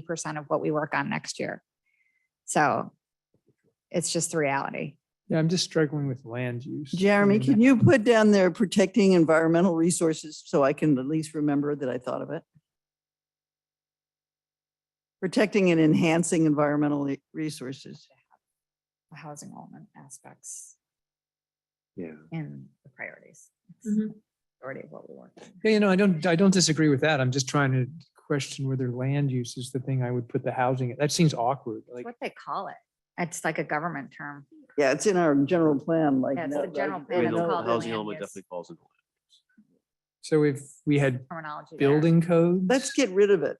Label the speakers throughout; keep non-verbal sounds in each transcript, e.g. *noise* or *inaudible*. Speaker 1: percent of what we work on next year. So it's just the reality.
Speaker 2: Yeah, I'm just struggling with land use. I
Speaker 3: Jeremy,
Speaker 2: mean,
Speaker 3: can you put down there protecting environmental resources so I can at least remember that I thought of it? Protecting and enhancing environmental re- resources.
Speaker 1: the Housing element aspects
Speaker 4: Yeah.
Speaker 1: in the priorities. It's
Speaker 2: Mm-hmm.
Speaker 5: Mhm.
Speaker 1: Already what we work. on.
Speaker 2: Yeah, you know, I don't, I don't disagree with that. I'm just trying to question whether land use is the thing I would put the housing. That seems awkward, like.
Speaker 1: What they call it. It's like a government term.
Speaker 3: Yeah, it's in our general plan, like.
Speaker 1: Yeah, it's
Speaker 3: no-
Speaker 1: the general plan,
Speaker 4: I mean,
Speaker 1: it's
Speaker 4: the
Speaker 1: called the
Speaker 4: housing
Speaker 1: land
Speaker 4: element
Speaker 1: use.
Speaker 4: definitely falls into. land use.
Speaker 2: So if we had
Speaker 1: Terminology. there.
Speaker 2: building code.
Speaker 3: Let's get rid of it.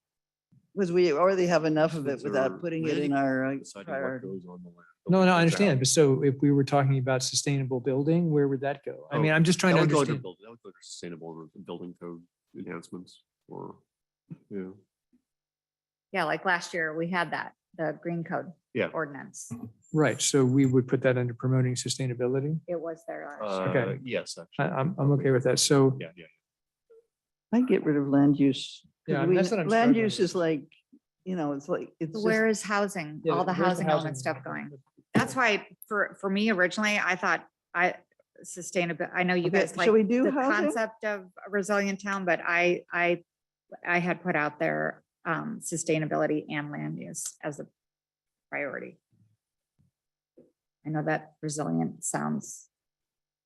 Speaker 3: Because we already have enough of it
Speaker 4: Since
Speaker 3: without
Speaker 4: our
Speaker 3: putting it in
Speaker 4: planning
Speaker 3: our. uh,
Speaker 4: Deciding what
Speaker 3: priority.
Speaker 4: goes on the land.
Speaker 2: No, no, I
Speaker 4: That's
Speaker 2: understand.
Speaker 4: out.
Speaker 2: But so if we were talking about sustainable building, where would that go? I
Speaker 4: Oh,
Speaker 2: mean, I'm just trying
Speaker 4: That
Speaker 2: to
Speaker 4: would go under
Speaker 2: understand.
Speaker 4: building, that would go under sustainable and building code enhancements or, yeah.
Speaker 1: Yeah, like last year, we had that, the green code.
Speaker 4: Yeah.
Speaker 1: Ordinance.
Speaker 2: Right, so we would put that under promoting sustainability.
Speaker 1: It was there last year.
Speaker 4: Uh,
Speaker 2: Okay.
Speaker 4: yes, actually.
Speaker 2: I, I'm, I'm okay with that. So
Speaker 4: Yeah, yeah.
Speaker 3: I get rid of land use. 'cause
Speaker 2: Yeah,
Speaker 3: we-
Speaker 2: that's what I'm
Speaker 3: Land
Speaker 2: struggling
Speaker 3: use
Speaker 2: with.
Speaker 3: is like, you know, it's like, it's just.
Speaker 1: Where is housing,
Speaker 2: Yeah,
Speaker 1: all the
Speaker 2: where's the
Speaker 1: housing
Speaker 2: housing
Speaker 1: element stuff
Speaker 2: element?
Speaker 1: going? That's why for, for me originally, I thought I sustainable, I know you
Speaker 3: Okay,
Speaker 1: guys like
Speaker 3: Shall we do
Speaker 1: the
Speaker 3: housing?
Speaker 1: concept of a resilient town, but I, I, I had put out there um, sustainability and land use as a priority. I know that resilient sounds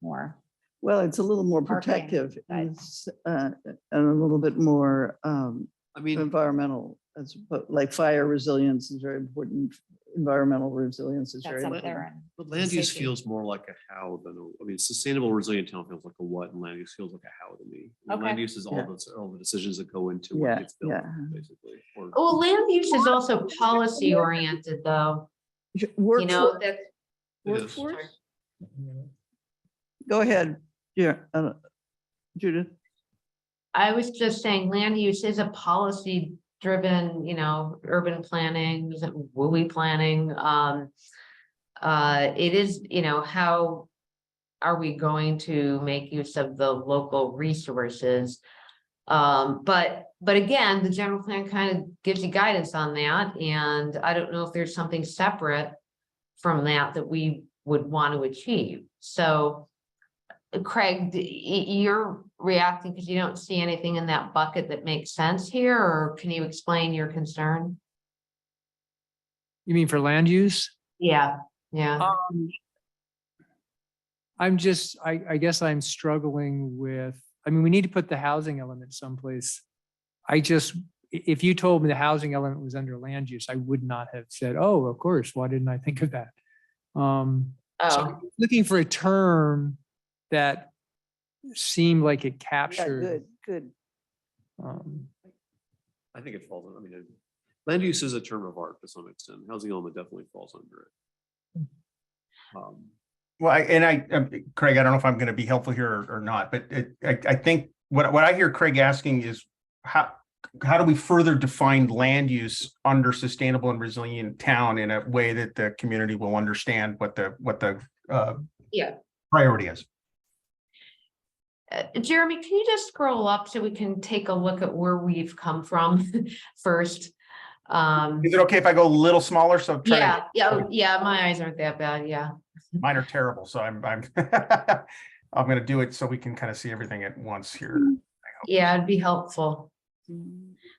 Speaker 1: more,
Speaker 3: Well, it's a little more
Speaker 1: Marketing,
Speaker 3: protective
Speaker 1: right.
Speaker 3: and it's, uh, and a little bit more um,
Speaker 4: I mean,
Speaker 3: environmental. As, oppo- like fire resilience is very important, environmental resilience is very
Speaker 1: that's up
Speaker 3: important.
Speaker 1: there. and-
Speaker 4: but land use
Speaker 1: safety.
Speaker 4: feels more like a how than, a- I mean, sustainable resilient town feels like a what and land use feels like a how to me. And Land
Speaker 5: Okay.
Speaker 4: use is all
Speaker 3: Yeah.
Speaker 4: those, all the decisions that go into
Speaker 3: Yeah,
Speaker 4: what gets built,
Speaker 3: yeah.
Speaker 4: basically. or-
Speaker 5: Well, land use is also policy oriented though, you know,
Speaker 3: Workforce,
Speaker 5: that's.
Speaker 4: It is.
Speaker 5: Workforce?
Speaker 3: go ahead, yeah, I don't- Judith.
Speaker 5: I was just saying, land use is a policy driven, you know, urban planning, is it WUI planning, um. Uh, it is, you know, how are we going to make use of the local resources? Um, but, but again, the general plan kind of gives you guidance on that, and I don't know if there's something separate. From that that we would want to achieve, so. Craig, d- y- you're reacting because you don't see anything in that bucket that makes sense here, or can you explain your concern?
Speaker 2: You mean for land use?
Speaker 5: Yeah, yeah,
Speaker 2: I'm just, I, I guess I'm struggling with, I mean, we need to put the housing element someplace. I just, i- if you told me the housing element was under land use, I would not have said, oh, of course, why didn't I think of that? Um, so
Speaker 5: oh,
Speaker 2: I'm looking for a term that seemed like it
Speaker 3: Yeah,
Speaker 2: captured.
Speaker 3: Good, good.
Speaker 2: um,
Speaker 4: I think it falls, in- I mean, it- land use is a term of art to some extent. Housing element definitely falls under it. Um,
Speaker 6: Well, I- and I, um, Craig, I don't know if I'm going to be helpful here or- or not, but it- I, I think what, what I hear Craig asking is how, how do we further define land use under sustainable and resilient town in a way that the community will understand what the, what the, uh,
Speaker 5: Yeah.
Speaker 6: priority is?
Speaker 5: Uh, Jeremy, can you just scroll up so we can take a look at where we've come from *laughs* first? Um,
Speaker 6: Is it okay if I go a little smaller? So try to-
Speaker 5: yeah, yeah, oh, yeah, my eyes aren't that bad, yeah.
Speaker 6: mine are terrible, so I'm, I'm, *laughs* I'm going to do it so we can kind of see everything at once here.
Speaker 5: Yeah, it'd be helpful.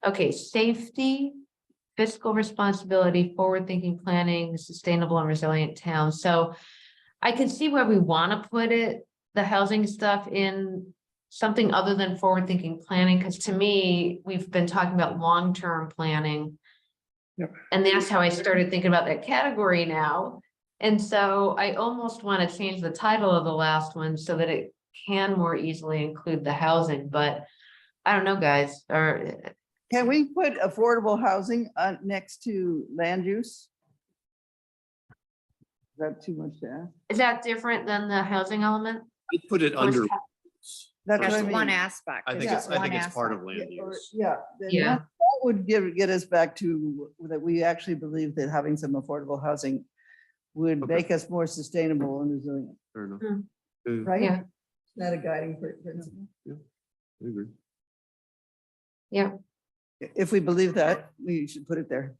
Speaker 5: Okay, safety, fiscal responsibility, forward-thinking planning, sustainable and resilient town. So I can see where we want to put it, the housing stuff in something other than forward-thinking planning, because to me, we've been talking about long-term planning.
Speaker 2: Yep.
Speaker 5: And that's how I started thinking about that category now. And so I almost want to change the title of the last one so that it can more easily include the housing, but I don't know, guys, or uh,
Speaker 3: Can we put affordable housing uh, next to land use? Is that too much to ask?
Speaker 5: is that different than the housing element?
Speaker 4: I'd put it
Speaker 5: Or is
Speaker 4: under,
Speaker 5: that-
Speaker 3: That's what I
Speaker 1: That's one
Speaker 3: mean.
Speaker 1: aspect.
Speaker 4: I think
Speaker 3: Yeah.
Speaker 4: it's, I think it's part of
Speaker 3: Yeah,
Speaker 4: land
Speaker 3: or-
Speaker 4: use.
Speaker 3: Yeah. then that-
Speaker 5: Yeah.
Speaker 3: That would give, get us back to that we actually believe that having some affordable housing would
Speaker 4: Okay.
Speaker 3: make us more sustainable and resilient,
Speaker 4: Fair enough.
Speaker 5: Hmm.
Speaker 4: Yeah,
Speaker 3: right?
Speaker 5: Yeah.
Speaker 3: Is that a guiding pr- principle?
Speaker 4: I agree.
Speaker 5: Yeah.
Speaker 3: If we believe that, we should put it there.